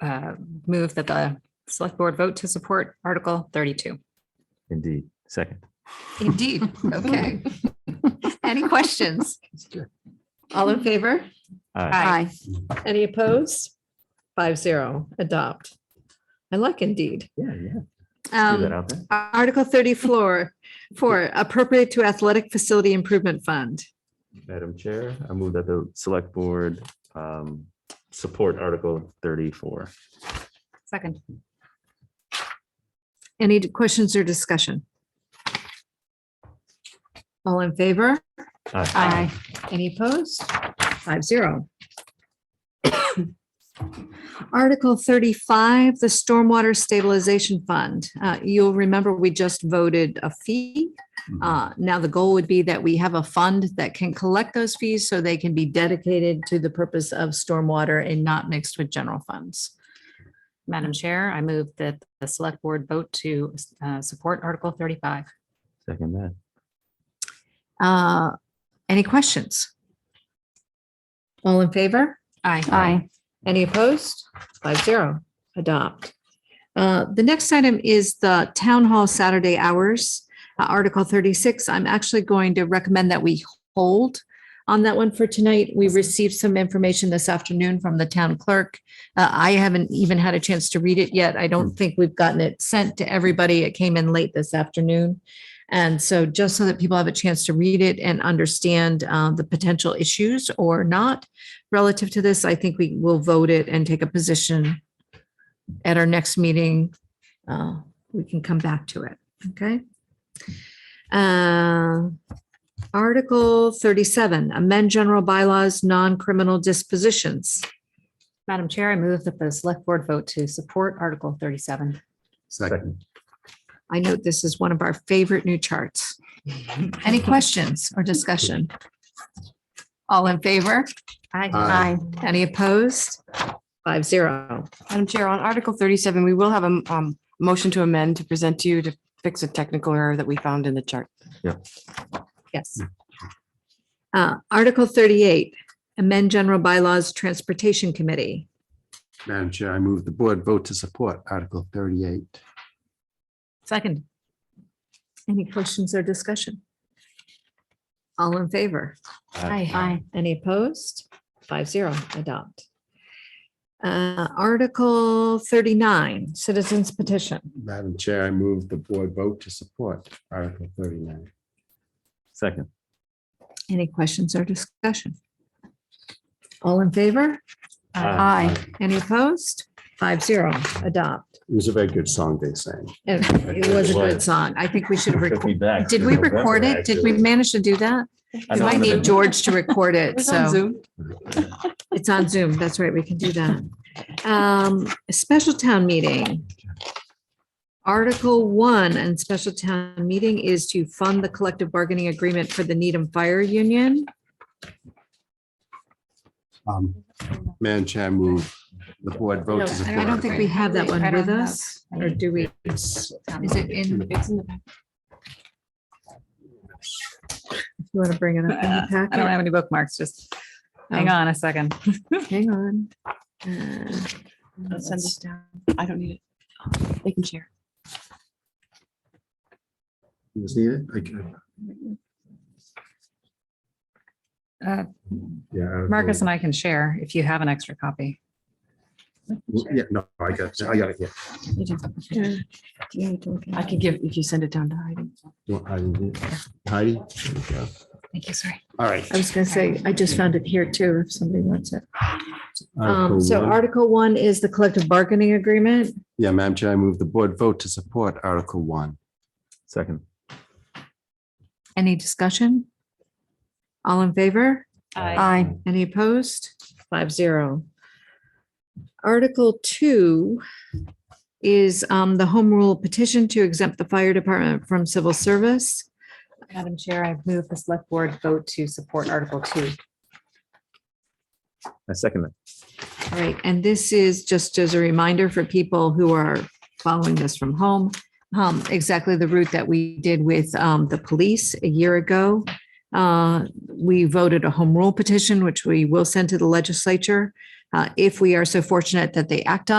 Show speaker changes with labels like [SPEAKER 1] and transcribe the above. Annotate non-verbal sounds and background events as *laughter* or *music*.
[SPEAKER 1] uh, move that the select board vote to support Article thirty-two.
[SPEAKER 2] Indeed. Second.
[SPEAKER 3] Indeed.
[SPEAKER 1] *laughs*
[SPEAKER 3] Okay. Any questions? All in favor?
[SPEAKER 2] Aye.
[SPEAKER 3] Aye.
[SPEAKER 4] Any opposed? Five zero, adopt. I like indeed.
[SPEAKER 2] Yeah, yeah. Do
[SPEAKER 3] Um,
[SPEAKER 2] that out there.
[SPEAKER 4] Article thirty-four, for appropriate to athletic facility improvement fund.
[SPEAKER 2] Madam Chair, I move that the select board um, support Article thirty-four.
[SPEAKER 1] Second.
[SPEAKER 4] Any questions or discussion? All in favor?
[SPEAKER 3] aye.
[SPEAKER 4] Any opposed? Five zero. Article thirty-five, the Stormwater Stabilization Fund. Uh, You'll remember we just voted a fee.
[SPEAKER 2] Mm-hmm.
[SPEAKER 4] Uh, Now the goal would be that we have a fund that can collect those fees so they can be dedicated to the purpose of stormwater and not mixed with general funds.
[SPEAKER 1] Madam Chair, I move that the select board vote to uh, support Article thirty-five.
[SPEAKER 2] Second that.
[SPEAKER 4] Uh, Any questions? All in favor?
[SPEAKER 1] Aye.
[SPEAKER 3] Aye.
[SPEAKER 4] Any opposed? Five zero, adopt. Uh, The next item is the Town Hall Saturday hours, uh, Article 36. I'm actually going to recommend that we hold on that one for tonight. We received some information this afternoon from the town clerk. Uh, I haven't even had a chance to read it yet. I don't think we've gotten it sent to everybody. It came in late this afternoon. And so just so that people have a chance to read it and understand uh, the potential issues or not, relative to this, I think we will vote it and take a position at our next meeting. Uh, We can come back to it, okay? Uh, Article thirty-seven, amend general bylaws, non-criminal dispositions.
[SPEAKER 1] Madam Chair, I move that the select board vote to support Article thirty-seven.
[SPEAKER 2] Second.
[SPEAKER 4] I note this is one of our favorite new charts. Any questions or discussion? All in favor?
[SPEAKER 1] Aye.
[SPEAKER 3] Aye.
[SPEAKER 4] Any opposed? Five zero.
[SPEAKER 5] Madam Chair, on Article thirty-seven, we will have a um, motion to amend to present to you to fix a technical error that we found in the chart.
[SPEAKER 4] Yes. Uh, Article thirty-eight, amend general bylaws, Transportation Committee.
[SPEAKER 6] Madam Chair, I move the board vote to support Article thirty-eight.
[SPEAKER 1] Second.
[SPEAKER 4] Any questions or discussion? All in favor?
[SPEAKER 2] Aye.
[SPEAKER 1] Aye.
[SPEAKER 4] Any opposed? Five zero, adopt. Uh, Article thirty-nine, Citizens Petition.
[SPEAKER 6] Madam Chair, I move the board vote to support Article thirty-nine.
[SPEAKER 2] Second.
[SPEAKER 4] Any questions or discussion? All in favor?
[SPEAKER 2] Aye.
[SPEAKER 3] Aye.
[SPEAKER 4] Any opposed? Five zero, adopt.
[SPEAKER 6] It was a very good song they sang.
[SPEAKER 4] It it was a good song. I think we should have recorded. Did we record it? Did we manage to do that? We might need George to record it, so it's on Zoom. That's right, we can do that. Um, a special town meeting. Article one and special town meeting is to fund the collective bargaining agreement for the Needham Fire Union.
[SPEAKER 6] Um, Madam Chair, I move the board vote to
[SPEAKER 4] I
[SPEAKER 6] support.
[SPEAKER 4] don't think we have that one
[SPEAKER 1] I don't
[SPEAKER 4] with
[SPEAKER 1] have-
[SPEAKER 4] us, or do we? Is it in? If you want to bring it up in the
[SPEAKER 1] I don't
[SPEAKER 4] packet,
[SPEAKER 1] have any bookmarks, just hang
[SPEAKER 4] Oh.
[SPEAKER 1] on a second.
[SPEAKER 4] hang on. Uh,
[SPEAKER 5] I'll send this down. I don't need it. They can share.
[SPEAKER 6] It was needed? Okay.
[SPEAKER 1] Uh,
[SPEAKER 6] Yeah. Article-
[SPEAKER 1] Marcus and I can share if you have an extra copy.
[SPEAKER 6] Yeah, no, I got, I got it here.
[SPEAKER 5] I can give, if you send it down to Heidi.
[SPEAKER 6] You want Heidi to do it? Heidi? There you go.
[SPEAKER 1] Thank you, sorry.
[SPEAKER 6] All right.
[SPEAKER 4] I was gonna say, I just found it here too, if somebody wants it. Um,
[SPEAKER 6] Article
[SPEAKER 4] so
[SPEAKER 6] one.
[SPEAKER 4] Article one is the collective bargaining agreement.
[SPEAKER 6] Yeah, Madam Chair, I move the board vote to support Article one.
[SPEAKER 2] Second.
[SPEAKER 4] Any discussion? All in favor?
[SPEAKER 3] Aye.
[SPEAKER 4] Any opposed? Five zero. Article two is um, the home rule petition to exempt the fire department from civil service.
[SPEAKER 1] Madam Chair, I move the select board vote to support Article two.
[SPEAKER 2] I second that.
[SPEAKER 4] All right, and this is just as a reminder for people who are following this from home, um, exactly the route that we did with um, the police a year ago. Uh, We voted a home rule petition, which we will send to the legislature. uh, If we are so fortunate that they act on.